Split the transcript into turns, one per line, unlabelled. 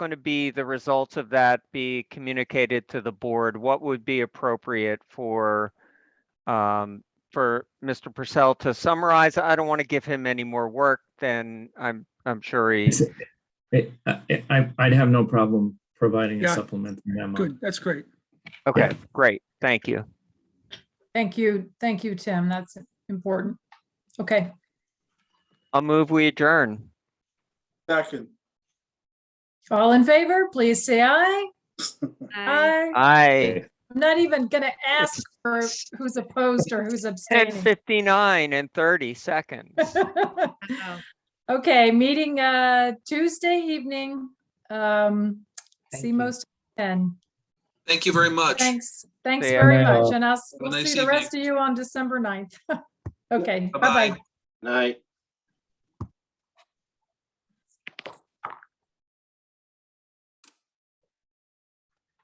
going to be the results of that be communicated to the board? What would be appropriate for um, for Mr. Purcell to summarize? I don't want to give him any more work than I'm I'm sure he.
It's- it- I- I, I'd have no problem providing a
Yeah.
supplemental memo.
Good, that's great.
Okay, great. Thank you.
Thank you, thank you, Tim. That's important. Okay,
I'll move. We adjourn.
Second.
all in favor, please say aye. Aye.
Aye.
I'm not even gonna ask for who's opposed or who's
Ten
abstaining.
fifty nine and thirty seconds.
Okay, meeting uh Tuesday evening. Um,
Thank
see
you.
most then.
Thank you very much.
Thanks, thanks
See ya.
very
Bye.
much, and I'll s-
a
we'll see
nice
the
evening.
rest of you on December 9th. Okay,
Bye-bye.
bye-bye.
Night.